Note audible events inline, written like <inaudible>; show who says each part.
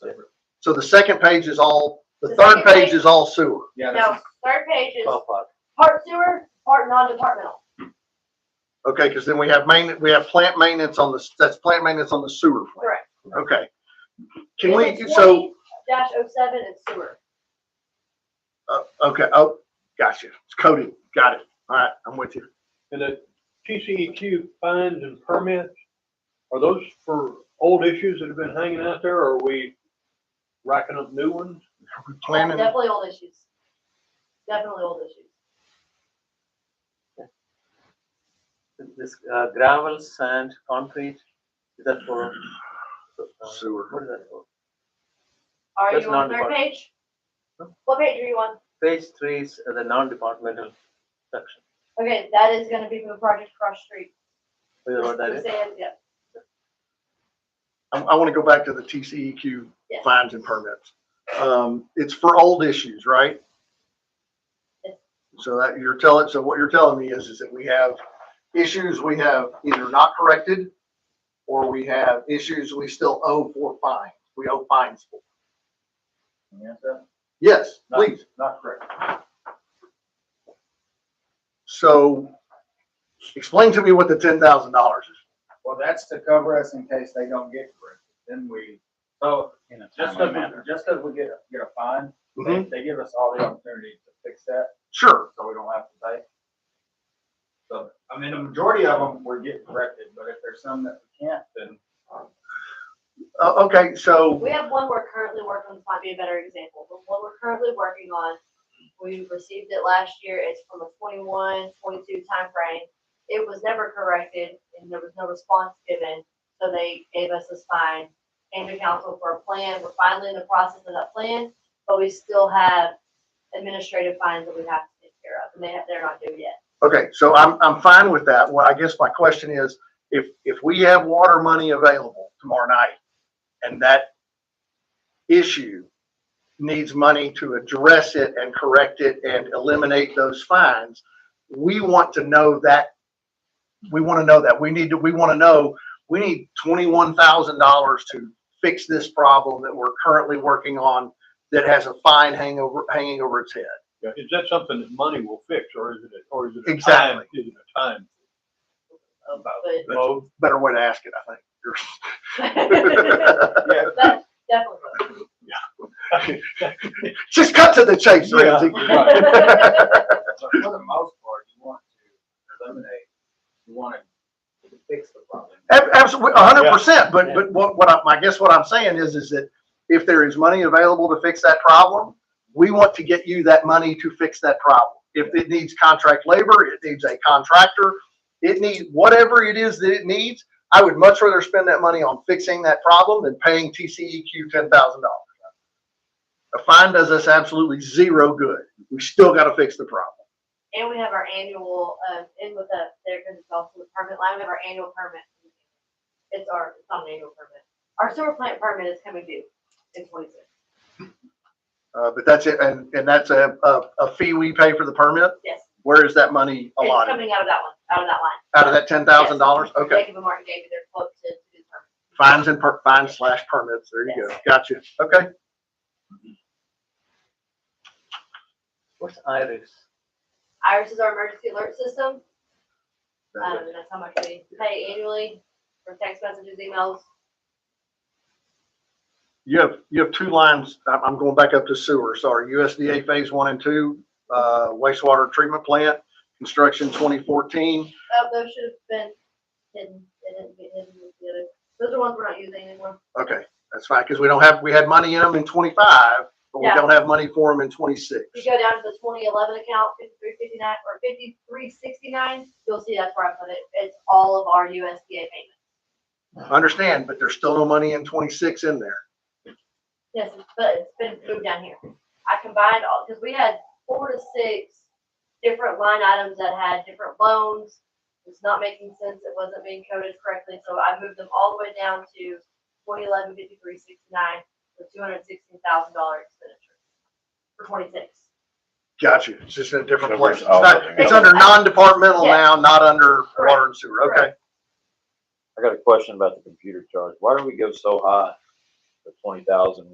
Speaker 1: So the second page is all, the
Speaker 2: The
Speaker 1: third
Speaker 2: second
Speaker 1: page
Speaker 2: page.
Speaker 1: is all sewer.
Speaker 3: Yeah,
Speaker 2: No,
Speaker 3: that's
Speaker 2: third page is
Speaker 3: twelve five.
Speaker 2: part sewer, part non-departmental.
Speaker 1: Okay, because then we have main, we have plant maintenance on the, that's plant maintenance on the sewer plant.
Speaker 2: Correct.
Speaker 1: Okay. Can we,
Speaker 2: It's
Speaker 1: so,
Speaker 2: 20-07 is oh sewer.
Speaker 1: okay, oh, gotcha. It's coded. Got it. All right, I'm with you.
Speaker 4: And the TCEQ fines and permits, are those for old issues that have been hanging out there, or are we racking up new ones?
Speaker 1: Are we planning?
Speaker 2: Definitely old issues. Definitely old issues.
Speaker 3: This uh, gravel, sand, concrete, is that for? uh,
Speaker 1: Sewer.
Speaker 3: What is that for?
Speaker 2: Are
Speaker 3: That's
Speaker 2: you on the third
Speaker 3: non-departmental.
Speaker 2: page? What page are you on?
Speaker 3: Page three is uh, the non-departmental section.
Speaker 2: Okay, that is gonna be for the project across the street.
Speaker 3: We know what that is?
Speaker 2: Sand, yeah.
Speaker 1: I, I want to go back to the TCEQ
Speaker 2: Yes.
Speaker 1: fines and permits. Um, it's for old issues, right?
Speaker 2: Yes.
Speaker 1: So that you're telling, so what you're telling me is, is that we have issues we have either not corrected or we have issues we still owe for fines. We owe fines for.
Speaker 5: Yes, sir.
Speaker 1: Yes,
Speaker 5: Not-
Speaker 1: please.
Speaker 5: Not correct.
Speaker 1: So explain to me what the ten thousand dollars is.
Speaker 5: Well, that's to cover us in case they don't get corrected. Then we, so,
Speaker 6: in a
Speaker 5: just
Speaker 6: timely
Speaker 5: as,
Speaker 6: manner.
Speaker 5: we- just as we get, a- get a fine,
Speaker 7: Mm-hmm.
Speaker 5: they, they give us all the opportunity to fix that,
Speaker 1: Sure.
Speaker 5: so we don't have to pay. So, I mean, the majority of them, we're getting corrected, but if there's some that we can't, then
Speaker 1: Uh, okay, so,
Speaker 2: We have one we're currently working on, this might be a better example, but one we're currently working on, we received it last year, it's from a 21, 22 time frame. It was never corrected and there was no response given, so they gave us this fine, came to council for a plan, we're finally in the process of that plan, but we still have administrative fines that we have to take care of, and they have, they're not due yet.
Speaker 1: okay, so I'm, I'm fine with that. Well, I guess my question is, if, if we have water money available tomorrow night and that issue needs money to address it and correct it and eliminate those fines, we want to know that, we want to know that. We need to, we want to know, we need twenty-one thousand dollars to fix this problem that we're currently working on that has a fine hangover, hanging over its head.
Speaker 4: Is that something that money will fix, or is it, a- or is it a time?
Speaker 1: Exactly.
Speaker 4: Is it a time?
Speaker 2: But,
Speaker 1: That's a better way to ask it, I
Speaker 2: <laughs> but
Speaker 5: yeah,
Speaker 2: definitely.
Speaker 1: think. Just cut to the chase,
Speaker 4: Yeah,
Speaker 1: Ramsey.
Speaker 2: <laughs> right.
Speaker 5: but for the most part, you want to eliminate, you want to fix the problem.
Speaker 1: Absolutely, hundred percent, but,
Speaker 3: Yeah.
Speaker 1: but what, what I, I guess what I'm saying is, is that if there is money available to fix that problem, we want to get you that money to fix that problem. If it needs contract labor, it needs a contractor, it needs whatever it is that it needs, I would much rather spend that money on fixing that problem than paying TCEQ ten thousand dollars. A fine does us absolutely zero good. We still gotta fix the problem.
Speaker 2: And we have our annual, um, in with the, there, because it's also the permit line, we have our annual permit. It's our, it's not an annual permit. Our sewer plant permit is coming due in twenty-six.
Speaker 1: Uh, but that's it, and, and that's a, a, a fee we pay for the permit?
Speaker 2: Yes,
Speaker 1: Where is that money
Speaker 2: it's
Speaker 1: allotted?
Speaker 2: coming out of that one, out of that line.
Speaker 1: Out of that ten thousand dollars? Okay,
Speaker 2: Jacob and Martin gave me their quote to do the permit.
Speaker 1: fines and per, fines slash permits, there you go, gotcha, okay.
Speaker 3: What's iris?
Speaker 2: Iris is our emergency alert system, um, and that's how much we pay annually for text messages, emails.
Speaker 1: You have, you have two lines, I'm, I'm going back up to sewer, sorry, USDA Phase One and Two, uh, wastewater treatment plant, construction twenty fourteen.
Speaker 2: Oh, those should have been hidden, they didn't get hidden with the other. Those are ones we're not using anymore.
Speaker 1: Okay, that's fine, because we don't have, we had money in them in twenty-five, but we
Speaker 2: Yeah.
Speaker 1: don't have money for them in twenty-six.
Speaker 2: If you go down to the twenty eleven account, fifty-three fifty-nine, or fifty-three sixty-nine, you'll see that's where I put it, it's all of our USDA payments.
Speaker 1: Understand, but there's still no money in twenty-six in there.
Speaker 2: Yes, but it's been moved down here. I combined all, because we had four to six different line items that had different loans. It's not making sense, it wasn't being coded correctly, so I moved them all the way down to twenty eleven fifty-three sixty-nine, with two hundred sixteen thousand dollar expenditure for twenty-six.
Speaker 1: Gotcha, it's just in a different
Speaker 6: So
Speaker 1: place.
Speaker 6: it's
Speaker 1: It's
Speaker 6: all
Speaker 1: not,
Speaker 6: looking
Speaker 1: it's
Speaker 2: at-
Speaker 1: under non-departmental
Speaker 2: Yes.
Speaker 1: now, not under water and sewer,
Speaker 2: Correct.
Speaker 1: okay?
Speaker 7: I got a question about the computer charge. Why do we go so high? The twenty thousand